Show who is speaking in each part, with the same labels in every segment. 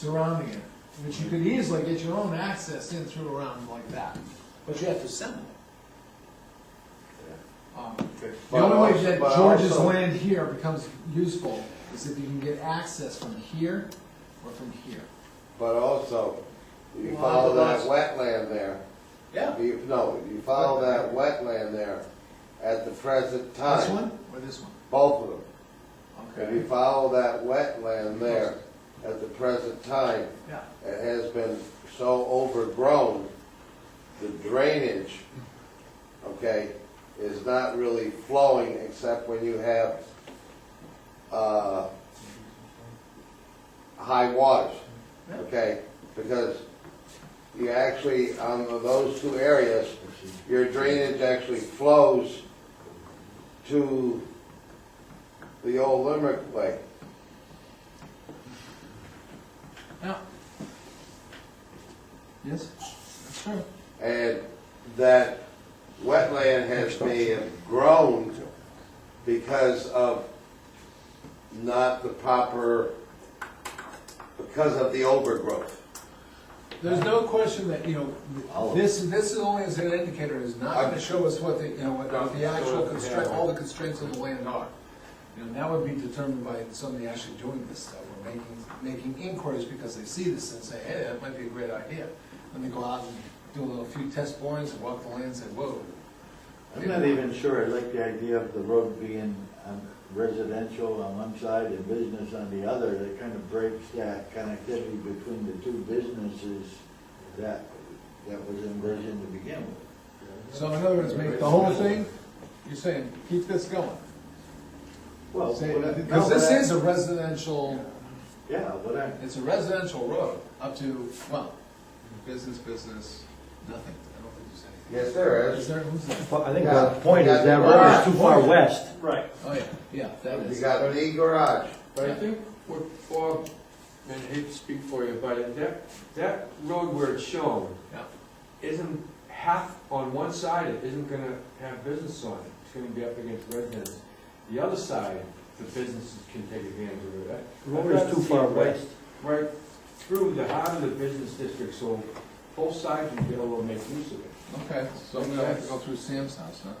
Speaker 1: surrounding it, which you could easily get your own access in through around like that, but you have to assemble it. Um, The
Speaker 2: But
Speaker 1: only way
Speaker 2: also-
Speaker 1: that
Speaker 2: but
Speaker 1: George's
Speaker 2: also-
Speaker 1: land here becomes useful is if you can get access from here or from here.
Speaker 2: But also, you
Speaker 1: Well,
Speaker 2: follow that
Speaker 1: otherwise-
Speaker 2: wetland there,
Speaker 1: Yeah.
Speaker 2: you, no, you follow that wetland there at the present
Speaker 1: This
Speaker 2: time,
Speaker 1: one or this one?
Speaker 2: both of them. If you
Speaker 1: Okay.
Speaker 2: follow that wetland there at the present time,
Speaker 1: Yeah.
Speaker 2: it has been so overgrown, the drainage, okay, is not really flowing except when you have, uh, high waters, okay? Because you actually, on those two areas, your drainage actually flows to the old Limerick Way.
Speaker 1: Yeah. Yes, that's true.
Speaker 2: And that wetland has been grown because of not the proper, because of the overgrowth.
Speaker 1: There's no question that, you know, this, this is only as an indicator, is not gonna show us what the, you know, what the actual constraint, all the constraints of the land are. You know, that would be determined by somebody actually doing this stuff, or making, making inquiries because they see this and say, hey, that might be a great idea. And they go out and do a little few test borings and walk the land and say, whoa.
Speaker 3: I'm not even sure I like the idea of the road being um, residential on one side and business on the other. That kind of breaks that connectivity between the two businesses that, that was envisioned to begin with.
Speaker 1: So in other words, make the whole thing, you're saying, keep this going.
Speaker 3: Well,
Speaker 1: Say-
Speaker 3: what I-
Speaker 1: Because this
Speaker 3: no,
Speaker 1: is a residential.
Speaker 3: Yeah, what I,
Speaker 1: It's a residential road up to, well, business, business, nothing. I don't think there's anything.
Speaker 2: Yes, there
Speaker 1: Is
Speaker 2: is.
Speaker 1: there, who's that?
Speaker 4: Well, I think
Speaker 2: Yeah.
Speaker 4: the point is that road is too far west.
Speaker 5: Right.
Speaker 1: Oh, yeah, yeah, that
Speaker 2: You
Speaker 1: is.
Speaker 2: got the garage.
Speaker 5: But I think what Bob, and I hate to speak for you, but that, that road where it's shown
Speaker 1: Yeah.
Speaker 5: isn't half, on one side, it isn't gonna have business on it. It's gonna be up against residents. The other side, the businesses can take advantage of it.
Speaker 4: The Road is too far west.
Speaker 5: Right through the heart of the business district, so both sides will be able to make use of it.
Speaker 1: Okay, so I'm gonna have to go through Sam's house, huh?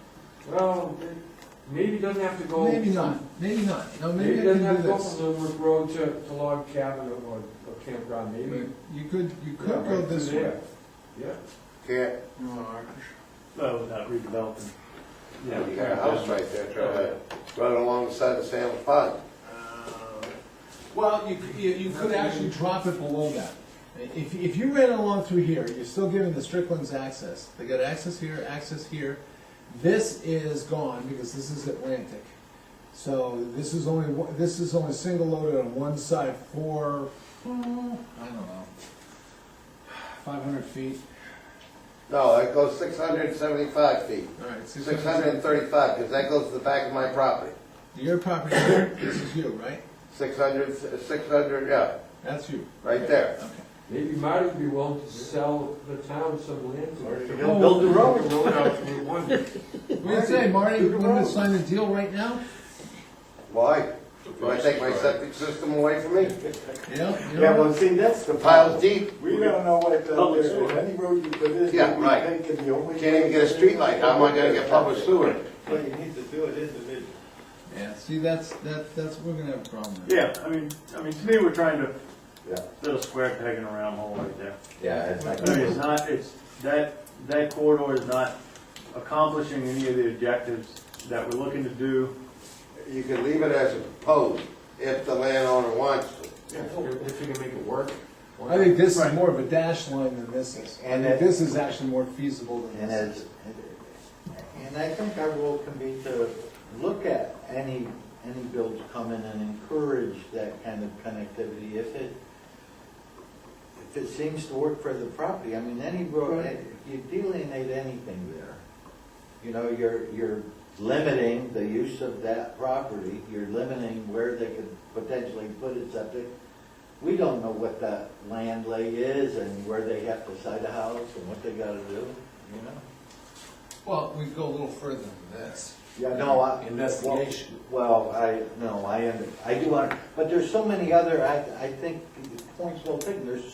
Speaker 5: Well, it- maybe it doesn't have to go.
Speaker 1: Maybe not, maybe not. No,
Speaker 5: Maybe
Speaker 1: maybe
Speaker 5: it
Speaker 1: I
Speaker 5: doesn't
Speaker 1: can
Speaker 5: have to
Speaker 1: do
Speaker 5: go
Speaker 1: this.
Speaker 5: from Limerick Road to, to log cabin or, or campground, maybe.
Speaker 1: You could, you could
Speaker 5: Yeah, right
Speaker 1: go this
Speaker 5: through
Speaker 1: way.
Speaker 5: there. Yeah.
Speaker 2: Can't,
Speaker 4: Oh, without redevelopment.
Speaker 2: you got a house right there, try to run alongside the Sam Pond.
Speaker 1: Uh, Well, you, c- you, you could actually drop it below that. If, if you ran along through here, you're still giving the Stricklands access. They got access here, access here. This is gone because this is Atlantic. So this is only, one- this is only single loaded on one side for, hmm, I don't know, five hundred feet.
Speaker 2: No, that goes six hundred and seventy-five feet,
Speaker 1: All right,
Speaker 2: six hundred and thirty-five, because that goes to the back of my property.
Speaker 1: Your property, this is you, right?
Speaker 2: Six hundred, six hundred, yeah,
Speaker 1: That's you.
Speaker 2: right there.
Speaker 1: Okay.
Speaker 5: Maybe Marty would be willing to sell the town some land.
Speaker 4: He'll build the road.
Speaker 6: Oh,
Speaker 1: What do you say, Marty, you want to sign the deal right now?
Speaker 2: Why? Do I take my septic system away from me?
Speaker 1: Yeah? you know?
Speaker 6: Yeah, well, see, that's the
Speaker 2: The pile's
Speaker 6: problem.
Speaker 2: deep,
Speaker 6: We don't know what,
Speaker 4: Public
Speaker 6: the-
Speaker 4: sewer.
Speaker 6: any road you put in, we
Speaker 2: Yeah, right.
Speaker 6: think is the only.
Speaker 2: can't even get a street light, how am I gonna get public sewer?
Speaker 6: Well, you need to do it individually.
Speaker 1: Yeah, see, that's, that, that's, we're gonna have a problem there.
Speaker 7: Yeah, I mean, I mean, to me, we're trying to
Speaker 3: yeah,
Speaker 7: fit a square peg in a round hole right there.
Speaker 3: yeah, it's not
Speaker 7: I mean, it's
Speaker 3: gonna
Speaker 7: not, it's, that, that corridor is not accomplishing any of the objectives that we're looking to do.
Speaker 2: You could leave it as a proposed, if the landowner wants to.
Speaker 5: If you can make it work.
Speaker 1: I think this is
Speaker 7: Right.
Speaker 1: more of a dash line than this is. I
Speaker 3: And
Speaker 1: think
Speaker 3: that-
Speaker 1: this is actually more feasible than
Speaker 3: And
Speaker 1: this.
Speaker 3: as, and I think our role can be to look at any, any bill to come in and encourage that kind of connectivity if it, if it seems to work for the property. I mean, any road, you delineate anything there. You know, you're, you're limiting the use of that property, you're limiting where they could potentially put it subject. We don't know what that land lay is and where they have to site a house and what they gotta do, you know?
Speaker 1: Well, we go a little further than this.
Speaker 3: Yeah, no, I.
Speaker 1: Investigation.
Speaker 3: Well, I, no, I, under- I do, under- but there's so many other, I, I think point's well taken, there's